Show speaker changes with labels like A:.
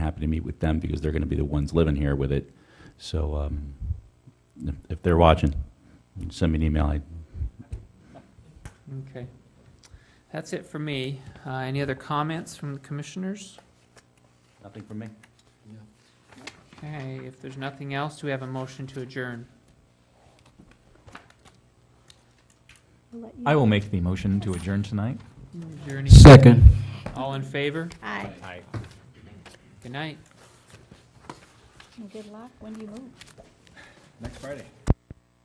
A: happy to meet with them because they're going to be the ones living here with it. So um, if- if they're watching, send me an email. I-
B: Okay. That's it for me. Uh, Any other comments from the commissioners?
A: Nothing from me.
B: Okay, if there's nothing else, do we have a motion to adjourn?
C: I will make the motion to adjourn tonight.
B: Is there any-
D: Second.
B: All in favor?
E: Aye.
B: Good night.
E: Good luck when you move.
F: Next Friday.